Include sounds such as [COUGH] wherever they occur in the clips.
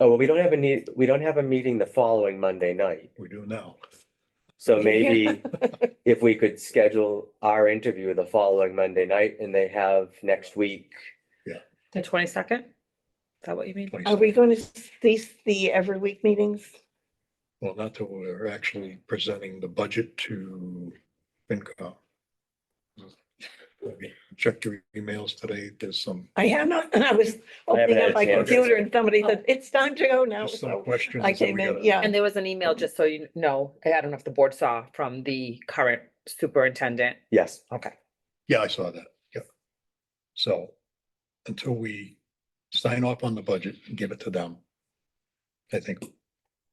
Oh, well, we don't have a need, we don't have a meeting the following Monday night. We do now. So [LAUGHS] maybe if we could schedule our interview the following Monday night and they have next week. The twenty-second? Is that what you mean? Are we going to cease the every week meetings? Well, not till we're actually presenting the budget to FinCom. Checked your emails today. There's some, I have not, and I was haven't opening had up a my chance. computer and somebody said, it's time to go now. there's some So questions. Oh, I that we came in, gotta- yeah. And there was an email, just so you know, I don't know if the board saw from the current superintendent. Yes, Okay. Yeah, I saw that. Yep. So until we sign off on the budget and give it to them, I think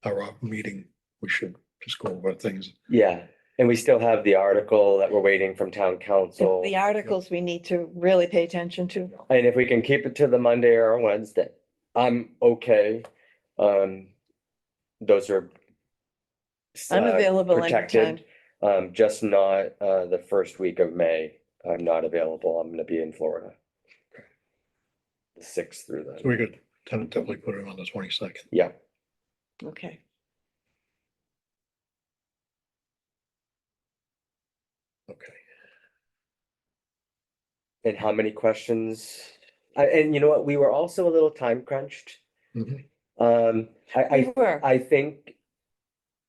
our uh, meeting, we should just go over things. yeah. And we still have the article that we're waiting from town council. The articles we need to really pay attention to. And if we can keep it to the Monday or Wednesday, I'm okay. Um, those are. s- I'm uh, available protected. anytime. Um, just not, uh, the first week of May. I'm not available. I'm gonna be in Florida. The sixth through So the, we could tentatively put it on the twenty-second. yeah, Okay. Okay. and how many questions? I and you know what? We were also a little time crunched. Mhm. Um, I, I We were. I think,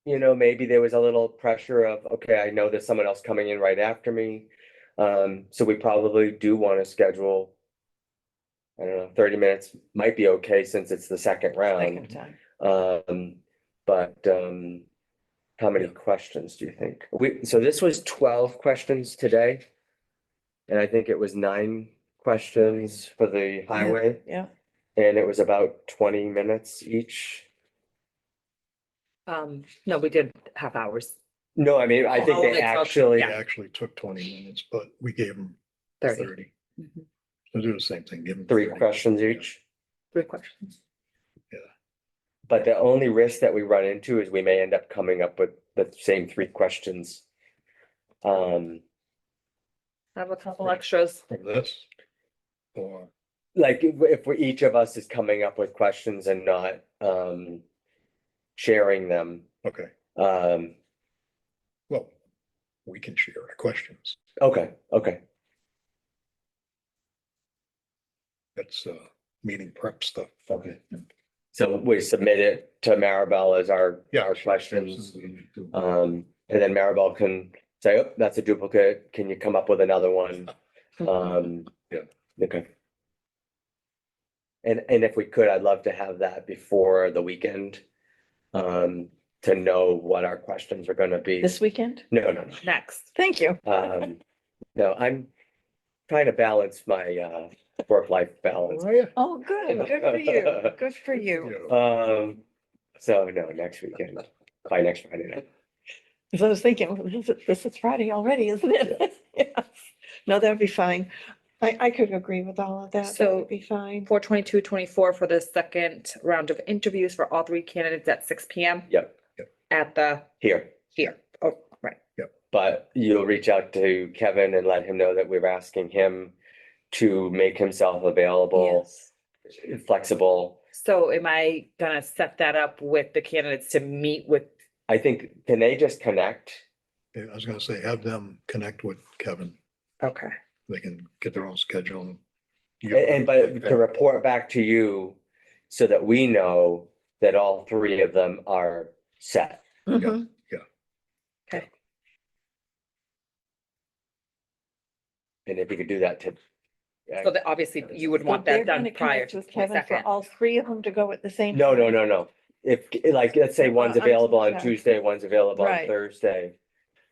you know, maybe there was a little pressure of, okay, I know there's someone else coming in right after me. Um, so we probably do want to schedule. I don't know, thirty minutes might be okay since it's the second Second round. time. Um, but, um, how many questions do you think? We, so this was twelve questions today. And I think it was nine questions for the highway. Yeah. And it was about twenty minutes each. Um, no, we did half hours, No, I mean, I think Oh, they they took- actually, It actually took twenty minutes, but we gave them thirty, thirty. Mhm. So do the same thing, give them. three 30. questions each, three questions. but the only risk that we run into is we may end up coming up with the same three questions. Um, I have a couple extras. From this. Or, like if, if we- each of us is coming up with questions and not, um, sharing them, okay, um, well, we can share our questions. okay, okay, That's uh meeting prep stuff. okay. So we submit it to Maribel as our, Yeah. our sure, questions. absolutely. Um, and then Maribel can say, oh, that's a duplicate, can you come up with another one? Um. Yeah. Okay. And, and if we could, I'd love to have that before the weekend. Um, to know what our questions are gonna be. This weekend? No, no, Next. Thank you. no. Um, no, I'm trying to balance my, uh, work-life balance. Oh, yeah. Oh, good. Good [LAUGHS] for you. Good for you. Yeah. Um, so no, next weekend, by next Friday night. Because I was thinking, well, this is- this is Friday already, isn't it? [LAUGHS] Yes. No, that'd be fine. I, I could agree with all of that. That So- would Be fine. Four twenty-two, twenty-four for the second round of interviews for all three candidates at six P M. Yep. Yep. At the, Here, here, oh, right. but you'll reach out to Kevin and let him know that we're asking him to make himself available. Yes. flexible. So am I gonna set that up with the candidates to meet with I think, can they just connect? Yeah, I was gonna say, have them connect with Kevin. Okay, They can get their own schedule. and- A- And but to report back to you so that we know that all three of them are set. Mhm. And if we could do that to. uh, so that obviously you would So want they're that gonna done connect prior to with the Kevin For second. all three of them to go at the same. No, no, time? no, no. If, like, let's say one's uh, I'm available on sorry. Tuesday, one's available on Right. Thursday.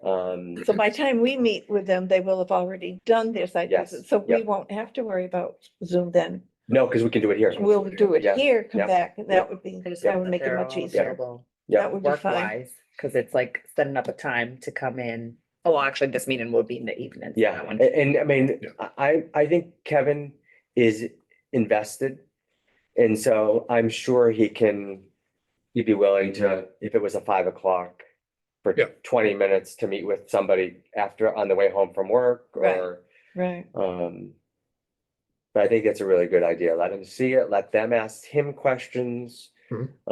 Um, So by the time we meet with them, they will have already done their site Yes, visit, so we yep. won't have to worry about Zoom then. no, because we can do it here. We'll do it Yeah, here, come yeah, back, and that yeah. would be, I just that hope would make it they're much all easier. available Yeah, That would be fine. Work-wise, because it's like setting up a time to come in. Oh, well, actually, this meeting will be in the evening. so yeah. that one- And, and I mean, Yeah. I, I think Kevin is invested. And so I'm sure he can, he'd be willing to, if it was a five o'clock for Yeah. twenty minutes to meet with somebody after, on the way home from work Right. or, Right, um, but I think that's a really good idea. Let him see it, let them ask him questions. Mhm.